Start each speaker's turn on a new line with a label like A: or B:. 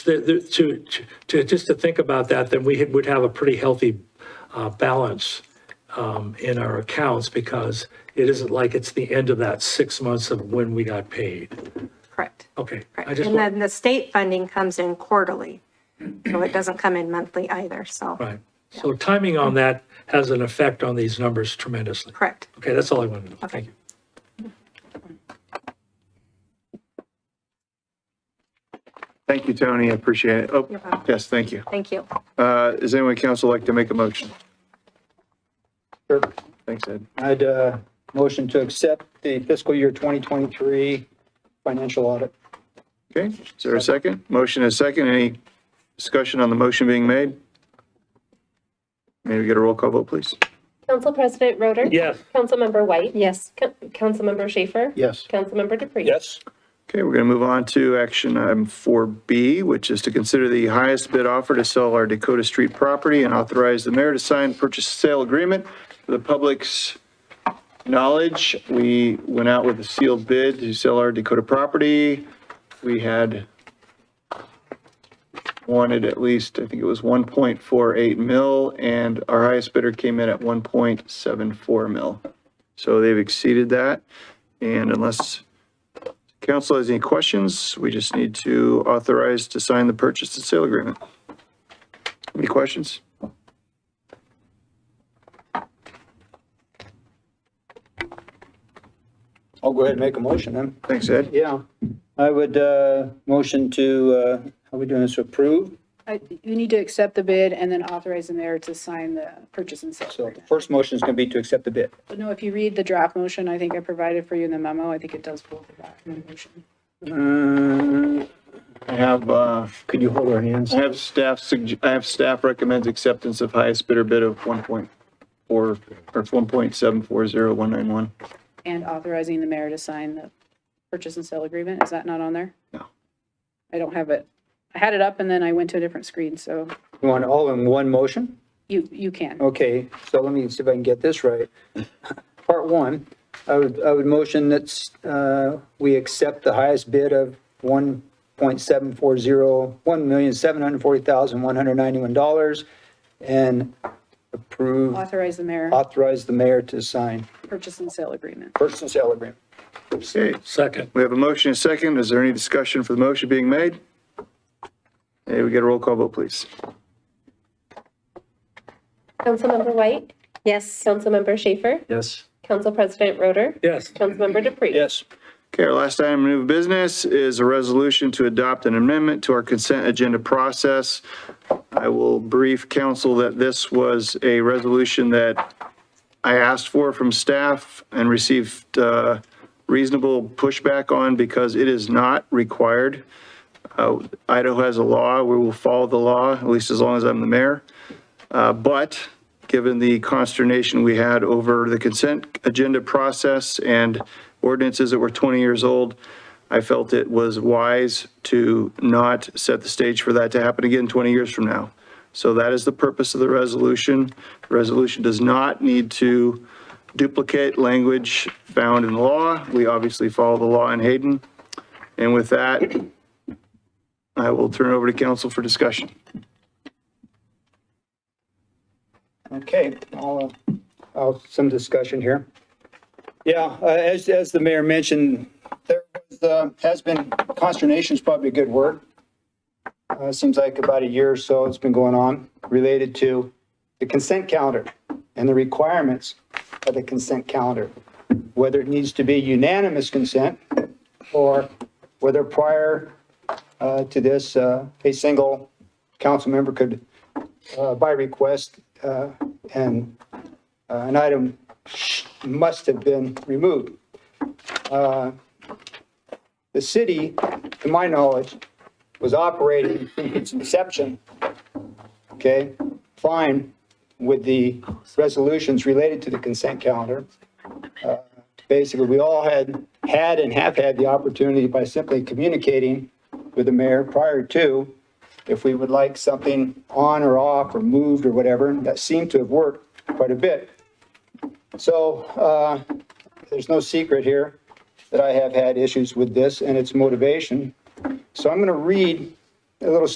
A: the- the- to, to- to, just to think about that, then we would have a pretty healthy uh, balance um, in our accounts because it isn't like it's the end of that six months of when we got paid.
B: Correct.
A: Okay. I
B: Correct.
A: just
B: And
A: wa-
B: then the state funding comes in quarterly, so it doesn't come in monthly either, so,
A: Right. So timing on that has an effect on these numbers tremendously.
B: correct.
A: Okay, that's all I wanted to know. Thank you.
C: Thank you, Tony. I appreciate it. Oh,
B: You're welcome.
C: yes, thank you.
B: Thank you.
C: Uh, Does anyone in council like to make a motion? Thanks, Ed.
D: I'd uh, motion to accept the fiscal year 2023 financial audit.
C: Okay, is there a second? Motion is second. Any discussion on the motion being made? May we get a roll call vote, please?
E: Council President Roder?
A: Yes.
E: Councilmember White? Yes. Councilmember Schaefer?
D: Yes.
E: Councilmember Dupree?
F: Yes.
C: Okay, we're going to move on to action item 4B, which is to consider the highest bid offer to sell our Dakota Street property and authorize the mayor to sign purchase sale agreement for the public's knowledge. We went out with a sealed bid to sell our Dakota property. We had wanted at least, I think it was 1.48 mil, and our highest bidder came in at 1.74 mil. So they've exceeded that, and unless Council has any questions, we just need to authorize to sign the purchase and sale agreement. Any questions?
D: I'll go ahead and make a motion then.
C: Thanks, Ed.
D: Yeah, I would uh, motion to, uh, how are we doing this, approve?
G: I- You need to accept the bid and then authorize the mayor to sign the purchase and sale.
D: So the
G: agreement.
D: first motion is going to be to accept the bid.
G: But No, if you read the draft motion, I think I provided for you in the memo, I think it does pull the draft motion.
D: Uh,
C: I have, uh,
D: Could you hold our hands?
C: I have staff, sugg- I have staff recommends acceptance of highest bidder bid of 1.4, or 1.740191.
G: And authorizing the mayor to sign the purchase and sale agreement, is that not on there?
C: No.
G: I don't have it. I had it up and then I went to a different screen, so
D: You want it all in one motion?
G: you, you can.
D: Okay, so let me see if I can get this right. Part one, I would, I would motion that uh, we accept the highest bid of 1.740, $1,740,191 and approve,
G: Authorize the mayor,
D: authorize the mayor to sign
G: purchase and sale agreement.
D: purchase and sale agreement.
C: Okay,
A: Second.
C: we have a motion and a second. Is there any discussion for the motion being made? Hey, we get a roll call vote, please.
E: Councilmember White? Yes. Councilmember Schaefer?
D: Yes.
E: Council President Roder?
A: Yes.
E: Councilmember Dupree?
D: Yes.
C: Okay, our last item of new business is a resolution to adopt an amendment to our consent agenda process. I will brief council that this was a resolution that I asked for from staff and received uh, reasonable pushback on because it is not required. Uh, Idaho has a law, we will follow the law, at least as long as I'm the mayor. Uh, But given the consternation we had over the consent agenda process and ordinances that were 20 years old, I felt it was wise to not set the stage for that to happen again 20 years from now. So that is the purpose of the resolution. The Resolution does not need to duplicate language found in the law. We obviously follow the law in Hayden. And with that, I will turn it over to council for discussion.
D: Okay, I'll, uh, I'll, some discussion here. Yeah, uh, as, as the mayor mentioned, there was, uh, has been consternation is probably a good word. Uh, seems like about a year or so it's been going on related to the consent calendar and the requirements of the consent calendar. Whether it needs to be unanimous consent or whether prior, uh, to this, uh, a single council member could uh, by request, uh, and uh, an item must have been removed. Uh, The city, to my knowledge, was operating from its inception, okay, fine with the resolutions related to the consent calendar. Uh, Basically, we all had, had and have had the opportunity by simply communicating with the mayor prior to if we would like something on or off or moved or whatever. That seemed to have worked quite a bit. So uh, there's no secret here that I have had issues with this and its motivation. So I'm going to read a little